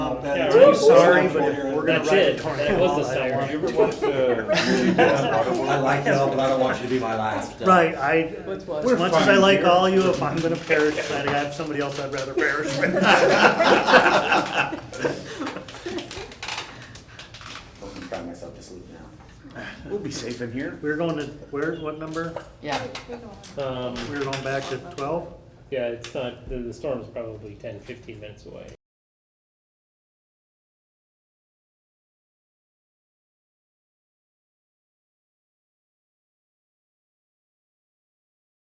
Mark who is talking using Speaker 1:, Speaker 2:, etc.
Speaker 1: Yeah,
Speaker 2: I'm
Speaker 1: really
Speaker 2: sorry,
Speaker 1: sorry,
Speaker 2: but if
Speaker 1: but
Speaker 2: we're gonna
Speaker 3: that's
Speaker 2: write
Speaker 3: it.
Speaker 2: a tornado,
Speaker 3: That was the
Speaker 2: I don't
Speaker 3: siren.
Speaker 2: want
Speaker 4: You
Speaker 2: it.
Speaker 4: ever watched, uh, really bad Audible?
Speaker 5: I like y'all, but I don't want you to be my last. uh,
Speaker 2: Right, I,
Speaker 3: What's what?
Speaker 2: as much as I
Speaker 4: fine
Speaker 2: like
Speaker 4: here.
Speaker 2: all you, if I'm gonna perish, I have somebody else I'd rather perish with.
Speaker 5: I'm gonna cry myself to sleep now.
Speaker 4: We'll be safe in here.
Speaker 2: We're going to, where, what number?
Speaker 6: Yeah,
Speaker 3: Um,
Speaker 2: We're going back to twelve?
Speaker 3: yeah, it's not, the, the storm's probably ten, fifteen minutes away.